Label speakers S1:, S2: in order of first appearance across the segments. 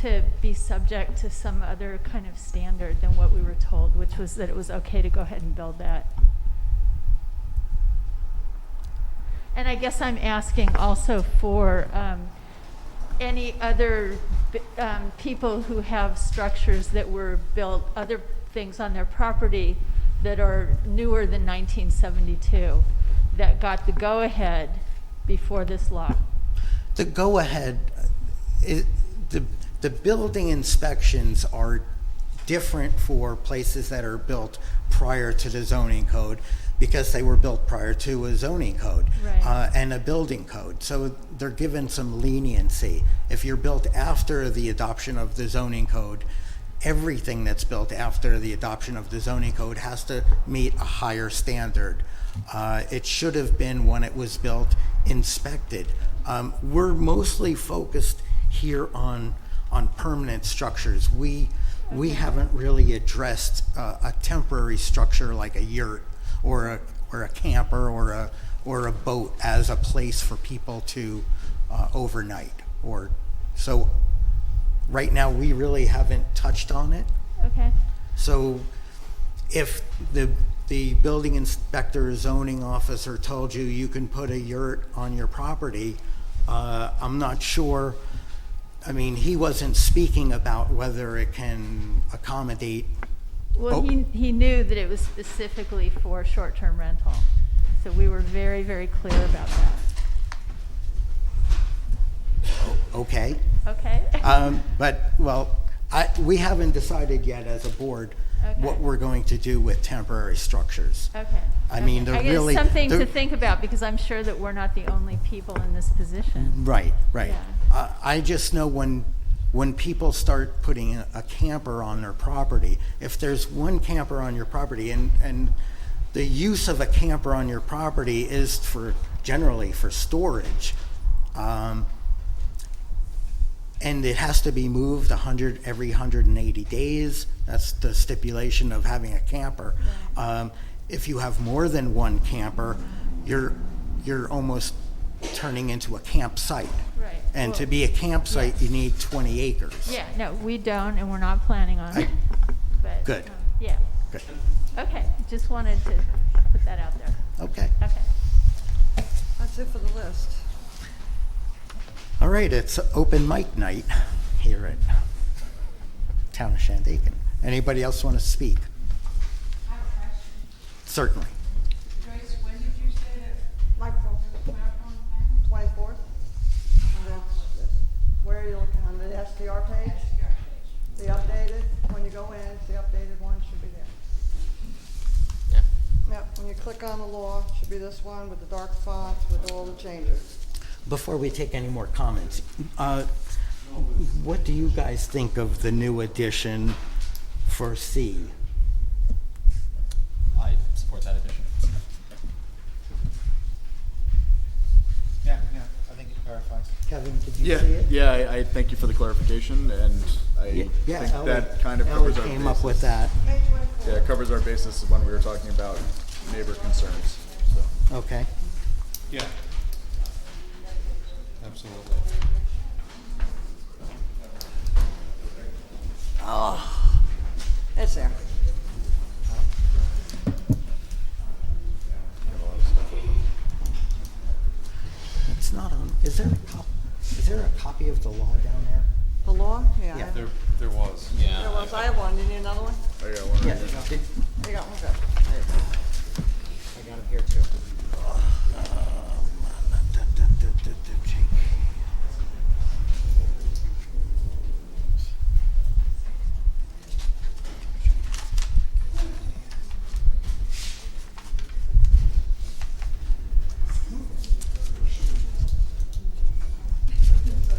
S1: to be subject to some other kind of standard than what we were told, which was that it was okay to go ahead and build that. And I guess I'm asking also for um, any other b- um, people who have structures that were built, other things on their property that are newer than 1972, that got the go-ahead before this law.
S2: The go-ahead, it, the, the building inspections are different for places that are built prior to the zoning code because they were built prior to a zoning code.
S1: Right.
S2: Uh, and a building code, so they're given some leniency. If you're built after the adoption of the zoning code, everything that's built after the adoption of the zoning code has to meet a higher standard. Uh, It should have been, when it was built, inspected. Um, We're mostly focused here on, on permanent structures. We, we haven't really addressed uh, a temporary structure like a yurt or a, or a camper or a, or a boat as a place for people to uh, overnight or, so right now, we really haven't touched on it.
S1: Okay?
S2: So if the, the building inspector, zoning officer told you you can put a yurt on your property, uh, I'm not sure, I mean, he wasn't speaking about whether it can accommodate,
S1: Well,
S2: Oh.
S1: he, he knew that it was specifically for short-term rental, so we were very, very clear about that.
S2: okay?
S1: Okay?
S2: Um, But, well, I, we haven't decided yet as a board what
S1: Okay.
S2: we're going to do with temporary structures.
S1: Okay.
S2: I mean,
S1: okay.
S2: they're
S1: I guess
S2: really-
S1: Something to
S2: they're-
S1: think about, because I'm sure that we're not the only people in this position.
S2: Right, right.
S1: Yeah.
S2: Uh, I just know when, when people start putting a a camper on their property, if there's one camper on your property and, and the use of a camper on your property is for, generally for storage, um, and it has to be moved 100, every 180 days. That's the stipulation of having a camper. Um, If you have more than one camper, you're, you're almost turning into a campsite.
S1: Right.
S2: And to
S1: Well,
S2: be a campsite, you need 20 acres.
S1: Yeah, no, we don't, and we're not planning on it, but.
S2: Good.
S1: um, Yeah,
S2: Good.
S1: okay, just wanted to put that out there.
S2: Okay.
S1: Okay.
S3: That's it for the list.
S2: All right, it's open mic night here at Town of Shandaken. Anybody else want to speak?
S4: I have a question.
S2: Certainly.
S4: Joyce, when did you say that
S3: Like
S4: the marathon thing?
S3: twenty-fourth? Where are you looking, on the SDR page? The updated, when you go in, it's the updated one, should be there.
S5: Yeah.
S3: Yep, when you click on the law, should be this one with the dark fonts with all the changes.
S2: Before we take any more comments, uh, what do you guys think of the new addition for C?
S5: I support that addition.
S6: Yeah, yeah, I think it clarifies.
S2: Kevin, did you
S7: Yeah,
S2: see it?
S7: yeah, I, I thank you for the clarification, and I
S2: Yeah,
S7: think
S2: Ellie-
S7: that kind of
S2: Ellie
S7: covers our
S2: came up with
S7: basis.
S2: that,
S3: Page twenty-four.
S7: Yeah, it covers our basis when we were talking about neighbor concerns, so.
S2: okay.
S6: Yeah. Absolutely.
S3: It's there.
S2: It's not on, is there a cop, is there a copy of the law down there?
S3: The law? Yeah. I
S2: Yeah.
S3: have-
S6: There, there was.
S3: There was, I have one, do you need another one?
S7: I got one right here.
S2: Did-
S3: You got one, good.
S2: I got it here too.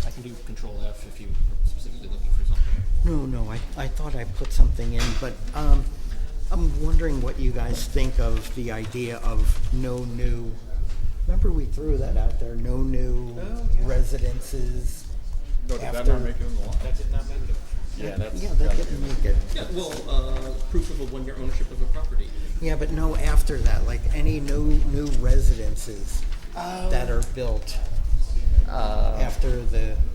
S5: I can do control F if you are specifically looking for something.
S2: No, no, I, I thought I put something in, but, um, I'm wondering what you guys think of the idea of no new, remember we threw that out there, no new residences?
S7: Oh, No, did that
S2: after-
S7: not make it in the law? That did not make it. Yeah, that's.
S2: Yeah, that
S7: gotta be
S2: didn't
S7: in the-
S2: make it.
S5: Yeah, well, uh, proof of a one-year ownership of a property.
S2: Yeah, but no after that, like any no
S7: Oh.
S2: new residences that are built uh, after the